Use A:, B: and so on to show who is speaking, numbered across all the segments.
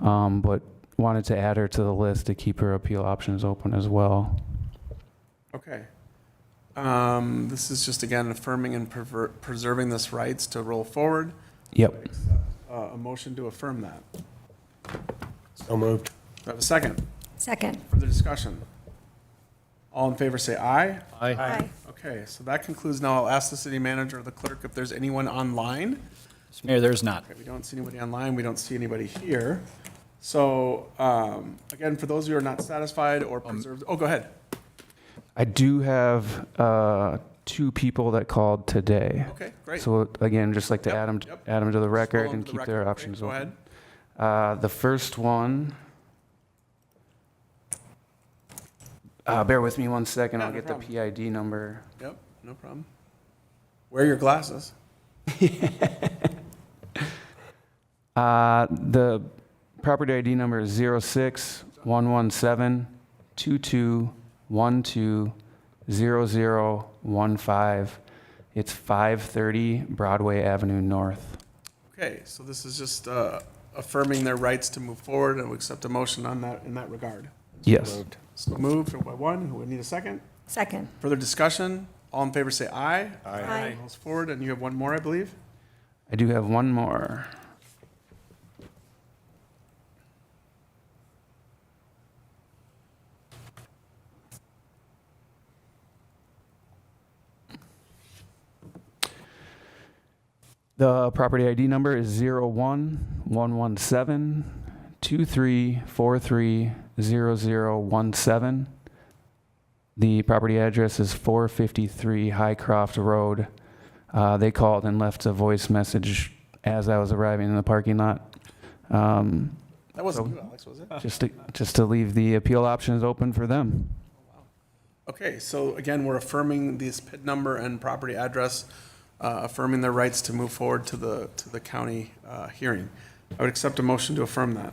A: Um, But wanted to add her to the list to keep her appeal options open as well.
B: Okay. Um, This is just, again, affirming and perver- preserving this rights to roll forward.
A: Yep.
B: Uh, A motion to affirm that. Do
C: So moved.
B: I have a second?
D: Second.
B: Further discussion? All in favor, say aye.
C: Aye.
D: Aye.
B: Okay, so that concludes. Now I'll ask the city manager or the clerk if there's anyone online.
E: Mayor, there's not.
B: Okay, we don't see anybody online, we don't see anybody here. So, um, again, for those who are not satisfied or
A: Um,
B: preserved, oh, go ahead.
A: I do have uh, two people that called today.
B: Okay, great.
A: So again, just like to
B: Yep,
A: add them,
B: yep.
A: add 'em to the record
B: Scroll
A: and
B: onto the
A: keep
B: record.
A: their
B: Okay,
A: options
B: Go
A: open.
B: ahead.
A: Uh, the first one. Uh, bear with me one second.
B: Yeah,
A: I'll
B: no
A: get
B: problem.
A: the PID number.
B: Yep, no problem. Wear your glasses.
A: Uh, the property ID number is zero six one one seven two two one two zero zero one five. It's five thirty Broadway Avenue North.
B: Okay, so this is just uh, affirming their rights to move forward, and we accept a motion on that, in that regard.
A: Yes.
B: So moved by one, who would need a second?
D: Second.
B: Further discussion? All in favor, say aye.
D: Aye.
B: All's forward, and you have one more, I believe?
A: I do have one more. The property ID number is zero one one one seven two three four three zero zero one seven. The property address is four fifty-three Highcroft Road. Uh, they called and left a voice message as I was arriving in the parking lot. Um,
B: That wasn't you, Alex, was it?
A: just to, just to leave the appeal options open for them.
B: Okay, so again, we're affirming this PID number and property address, uh, affirming their rights to move forward to the, to the county uh, hearing. I would accept a motion to affirm that.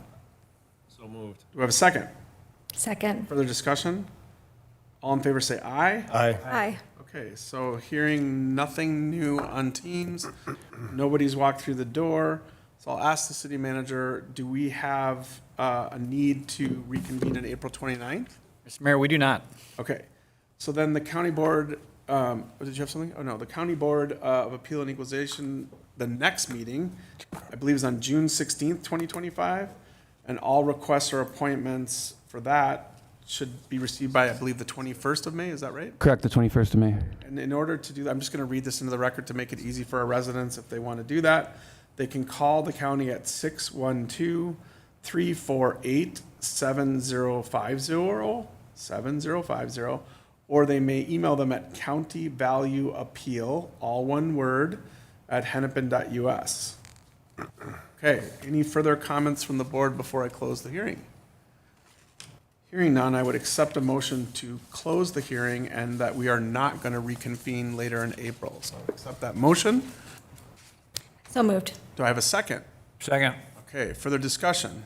C: So moved.
B: Do we have a second?
D: Second.
B: Further discussion? All in favor, say aye.
C: Aye.
D: Aye.
B: Okay, so hearing nothing new on Teams, nobody's walked through the door. So I'll ask the city manager, do we have uh, a need to reconvene on April 29th?
E: Mr. Mayor, we do not.
B: Okay, so then the county board, um, oh, did you have something? Oh, no, the county board uh, of appeal and equalization, the next meeting, I believe is on June sixteenth, twenty twenty-five. And all requests or appointments for that should be received by, I believe, the twenty-first of May, is that right?
A: Correct, the 21st of May.
B: And in order to do that, I'm just going to read this into the record to make it easy for our residents if they want to do that. They can call the county at 612 348 7050 7050, or they may email them at countyvalueappeal, all one word, at hennepin.us. Okay, any further comments from the board before I close the hearing? Hearing none, I would accept a motion to close the hearing and that we are not going to reconvene later in April. So I accept that motion.
D: So moved.
B: Do I have a second?
E: Second.
B: Okay, further discussion?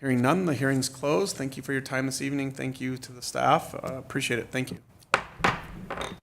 B: Hearing none, the hearing's closed. Thank you for your time this evening. Thank you to the staff. Uh, Appreciate it. Thank you.